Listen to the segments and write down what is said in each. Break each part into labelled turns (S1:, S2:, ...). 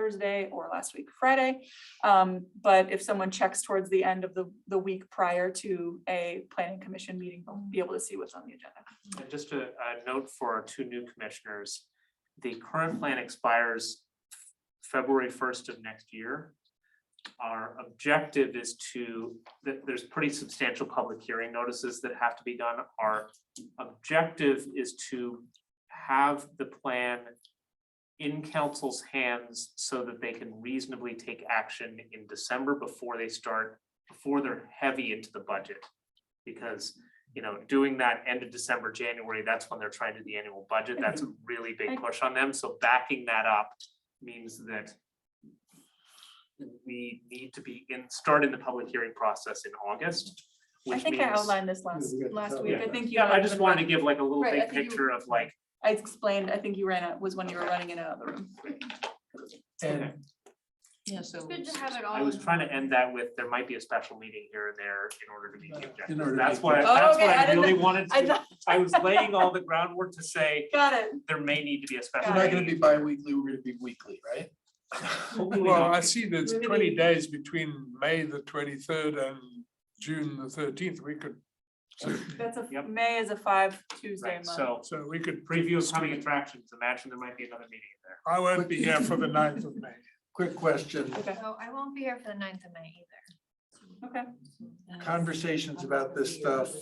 S1: Thursday or last week Friday. Um, but if someone checks towards the end of the, the week prior to a planning commission meeting, they'll be able to see what's on the agenda.
S2: And just a, a note for our two new commissioners, the current plan expires f- February first of next year. Our objective is to, th- there's pretty substantial public hearing notices that have to be done. Our objective is to have the plan in council's hands so that they can reasonably take action in December before they start, before they're heavy into the budget. Because you know, doing that end of December, January, that's when they're trying to do the annual budget. That's a really big push on them. So backing that up means that we need to be in, start in the public hearing process in August,
S1: I
S2: which
S1: think I
S2: means.
S1: outlined this last,
S3: we got the
S1: last
S3: top
S1: week. I
S3: line.
S1: think you.
S2: Yeah, I
S1: might
S2: just
S1: have
S2: wanted to
S1: been-
S2: give like a little
S1: Right, I
S2: big
S1: think you-
S2: picture of like,
S1: I explained, I think you ran out, was when you were running in and out of the room.
S2: okay.
S4: Yeah, so.
S5: Good to have it all.
S2: I
S1: Oh.
S2: was
S5: in
S2: trying to
S5: one.
S2: end that with, there might be a special meeting here and there in order to meet the
S3: Uh, In
S2: objectives.
S3: order to
S2: That's
S3: meet
S2: what, I-
S3: the-
S1: Oh,
S2: that's
S1: okay,
S2: what
S1: I
S2: I
S1: didn't-
S2: really wanted
S1: I
S2: to,
S1: thought-
S2: I was laying all the groundwork to say,
S1: Got it.
S2: there may need to be a special.
S3: We're not gonna
S2: meeting.
S3: be bi-weekly, we're gonna be weekly, right?
S2: Hopefully
S6: Well,
S2: not.
S6: I see there's
S1: Maybe
S6: twenty
S1: they-
S6: days between May the twenty-third and June the thirteenth. We could,
S1: That's a,
S2: Yep.
S1: May is a five Tuesday
S2: Right,
S1: month.
S2: so.
S6: so we could preview
S2: preview of coming
S6: something.
S2: attractions, imagine there might be another meeting in there.
S6: I won't be here for the 9th of May.
S3: Quick question,
S1: Okay,
S5: So I won't be here for the ninth of May either.
S1: okay.
S3: conversations about this stuff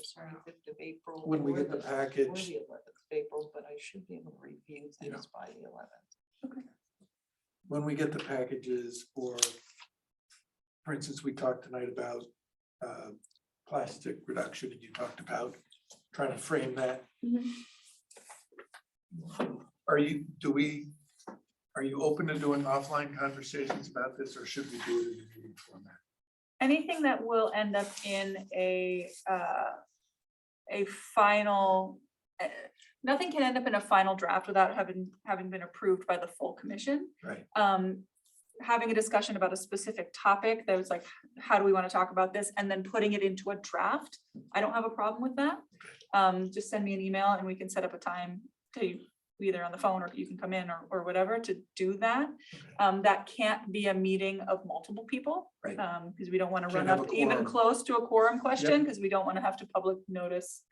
S3: when we get the package.
S4: Eleventh of April, but I should be able to review
S3: Yeah.
S4: things by the eleventh.
S3: when we get the packages or, for instance, we talked tonight about uh, plastic reduction and you talked about trying to frame that.
S1: Mhm.
S3: Are you, do we, are you open to doing offline conversations about this or should we do it in a meeting format?
S1: Anything that will end up in a, uh, a final, uh, nothing can end up in a final draft without having, having been approved by the full commission.
S3: Right.
S1: um, having a discussion about a specific topic that was like, how do we want to talk about this? And then putting it into a draft. I don't have a problem with that. Um, just send me an email and we can set up a time to either on the phone or you can come in or, or whatever to do that. Um, that can't be a meeting of multiple people.
S3: Right.
S1: Um, because we don't want to
S3: Can't
S1: run
S3: have
S1: up
S3: a
S1: even
S3: quorum.
S1: close to a quorum question because we don't want to have to public notice,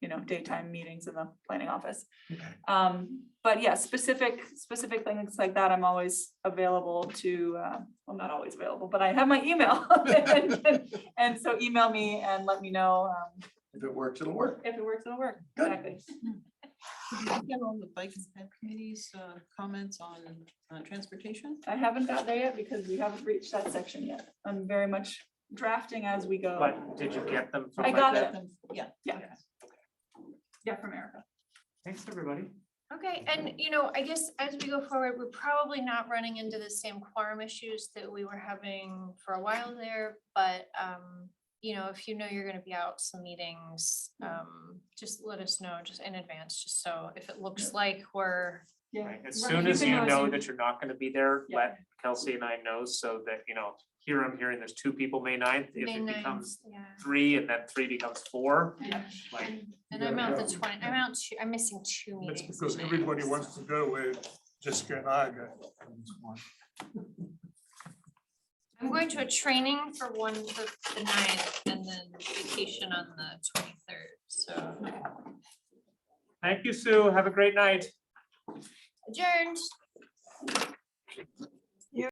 S1: you know, daytime meetings in the planning office.
S3: Okay.
S1: Um, but yeah, specific, specific things like that, I'm always available to, uh, well, not always available, but I have my email. And- And so email me and let me know, um,
S3: If it works, it'll work.
S1: if it works, it'll work.
S3: Good.
S1: Exactly.
S4: Get on the bike and ped committee's uh, comments on uh, transportation.
S1: I haven't got there yet because we haven't reached that section yet. I'm very much drafting as we go.
S2: But did you get them? from
S1: I
S2: my
S1: got
S2: desk?
S1: it.
S4: Yeah.
S1: Yeah. Yeah, from Erica.
S2: Thanks, everybody.
S5: Okay, and you know, I guess as we go forward, we're probably not running into the same quorum issues that we were having for a while there, but um, you know, if you know you're gonna be out some meetings,
S2: Hmm.
S5: um, just let us know just in advance, just so if it looks like we're
S1: Yeah.
S2: Right, As soon as you know that you're not gonna be there, let Kelsey and I know so that, you know, here I'm hearing there's two people May 9th. If
S5: May
S2: it
S5: ninth,
S2: becomes
S5: yeah.
S2: three and then three becomes four,
S1: Yeah.
S2: like,
S5: And- And I'm out
S3: gotta
S5: the
S3: go.
S5: twenty, I'm out, two- I'm missing two
S6: That's
S5: meetings. in
S6: because
S5: May,
S6: everybody
S5: so-
S6: wants to go where Jessica and I go.
S5: I'm going to a training for one for the ninth and then vacation on the twenty-third, so
S2: thank you, Sue. Have a great night.
S5: adjourned.